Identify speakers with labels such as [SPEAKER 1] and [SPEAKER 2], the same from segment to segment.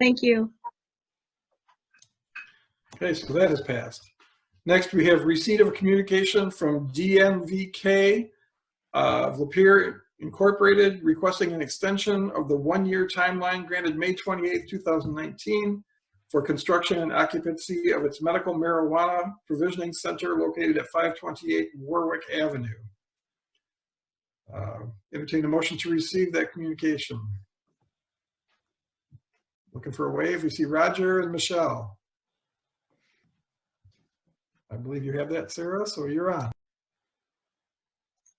[SPEAKER 1] Thank you.
[SPEAKER 2] Okay, so that has passed. Next, we have receipt of a communication from DMVK uh, of Lapeer Incorporated requesting an extension of the one-year timeline granted May 28, 2019 for construction and occupancy of its medical marijuana provisioning center located at 528 Warwick Avenue. Uh, Entertain a motion to receive that communication. Looking for a wave. We see Roger and Michelle. I believe you have that, Sarah, so you're on.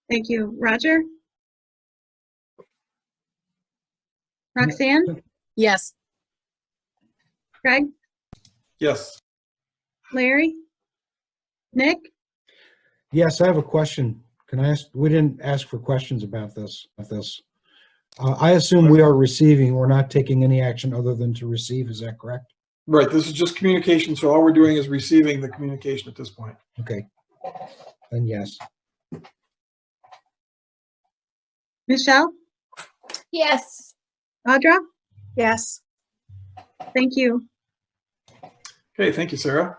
[SPEAKER 1] Thank you. Roger? Roxanne?
[SPEAKER 3] Yes.
[SPEAKER 1] Craig?
[SPEAKER 2] Yes,
[SPEAKER 1] Larry? Nick?
[SPEAKER 4] Yes, I have a question. Can I ask, we didn't ask for questions about this, about this. Uh, I assume we are receiving, we're not taking any action other than to receive, is that correct?
[SPEAKER 2] right, this is just communication, so all we're doing is receiving the communication at this point.
[SPEAKER 4] Okay. Then yes.
[SPEAKER 1] Michelle?
[SPEAKER 3] Yes.
[SPEAKER 1] Audra?
[SPEAKER 3] Yes.
[SPEAKER 1] Thank you.
[SPEAKER 2] Okay, thank you, Sarah.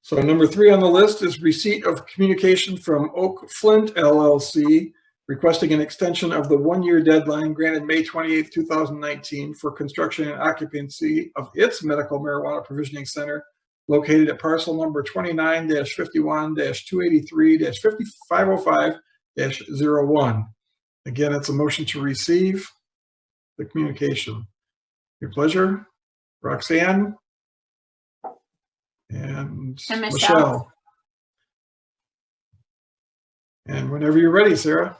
[SPEAKER 2] So number three on the list is receipt of communication from Oak Flint LLC requesting an extension of the one-year deadline granted May 28, 2019 for construction and occupancy of its medical marijuana provisioning center located at parcel number 29-51-283-5505-01. Again, it's a motion to receive the communication. Your pleasure. Roxanne? And
[SPEAKER 3] And Michelle.
[SPEAKER 2] Michelle. And whenever you're ready, Sarah.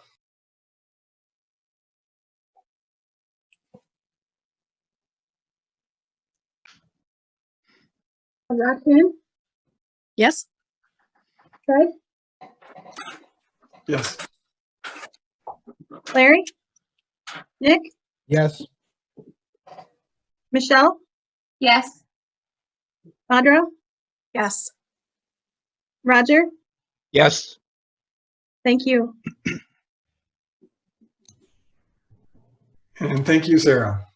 [SPEAKER 1] Roxanne?
[SPEAKER 3] Yes.
[SPEAKER 1] Craig?
[SPEAKER 2] Yes.
[SPEAKER 1] Larry? Nick?
[SPEAKER 4] Yes,
[SPEAKER 1] Michelle?
[SPEAKER 3] Yes.
[SPEAKER 1] Audra?
[SPEAKER 3] Yes.
[SPEAKER 1] Roger?
[SPEAKER 5] Yes,
[SPEAKER 1] Thank you.
[SPEAKER 2] And thank you, Sarah.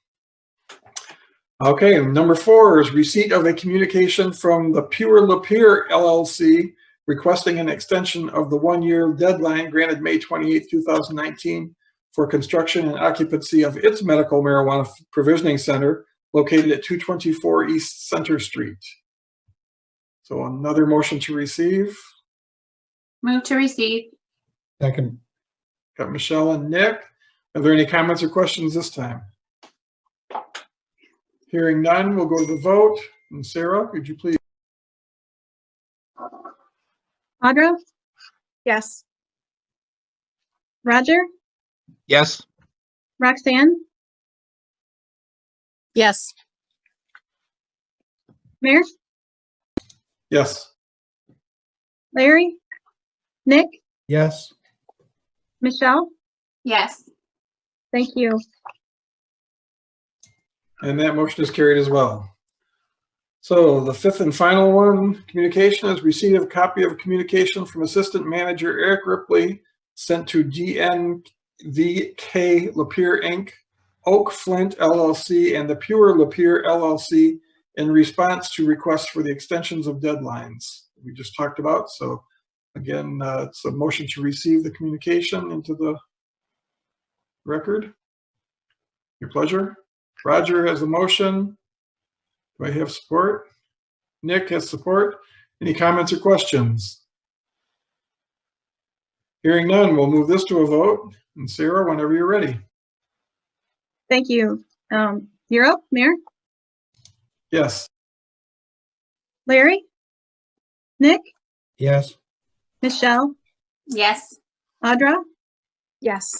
[SPEAKER 2] Okay, number four is receipt of a communication from the Pure Lapeer LLC requesting an extension of the one-year deadline granted May 28, 2019 for construction and occupancy of its medical marijuana provisioning center located at 224 East Center Street. So another motion to receive.
[SPEAKER 6] Move to receive.
[SPEAKER 4] second,
[SPEAKER 2] Got Michelle and Nick. Are there any comments or questions this time? Hearing none, we'll go to the vote. And Sarah, could you please?
[SPEAKER 1] Audra?
[SPEAKER 3] Yes.
[SPEAKER 1] Roger?
[SPEAKER 5] yes,
[SPEAKER 1] Roxanne?
[SPEAKER 3] Yes.
[SPEAKER 1] Mayor?
[SPEAKER 2] Yes.
[SPEAKER 1] Larry? Nick?
[SPEAKER 4] yes,
[SPEAKER 1] Michelle?
[SPEAKER 6] Yes.
[SPEAKER 1] Thank you.
[SPEAKER 2] And that motion is carried as well. So the fifth and final one, communication is receipt of copy of communication from Assistant Manager Eric Ripley sent to DNVK Lapeer Inc., Oak Flint LLC, and the Pure Lapeer LLC in response to requests for the extensions of deadlines we just talked about. So again, uh, it's a motion to receive the communication into the record. Your pleasure. Roger has a motion. Do I have support? Nick has support. Any comments or questions? Hearing none, we'll move this to a vote. And Sarah, whenever you're ready.
[SPEAKER 1] Thank you. Um, you're up, Mayor?
[SPEAKER 2] Yes,
[SPEAKER 1] Larry? Nick?
[SPEAKER 4] yes,
[SPEAKER 1] Michelle?
[SPEAKER 6] Yes.
[SPEAKER 1] Audra?
[SPEAKER 3] Yes.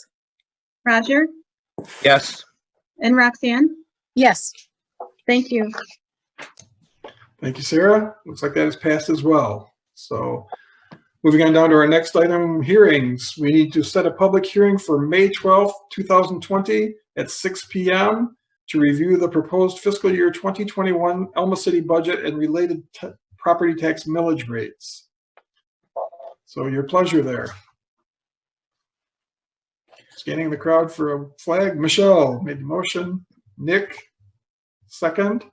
[SPEAKER 1] Roger?
[SPEAKER 5] yes.
[SPEAKER 1] And Roxanne?
[SPEAKER 3] Yes.
[SPEAKER 1] Thank you.
[SPEAKER 2] thank you, Sarah. Looks like that has passed as well. So moving on down to our next item, hearings. We need to set a public hearing for May 12th, 2020 at 6 PM to review the proposed fiscal year 2021 Elma City budget and related t- property tax millage rates. So your pleasure there. Scanning the crowd for a flag. Michelle made the motion. Nick Second,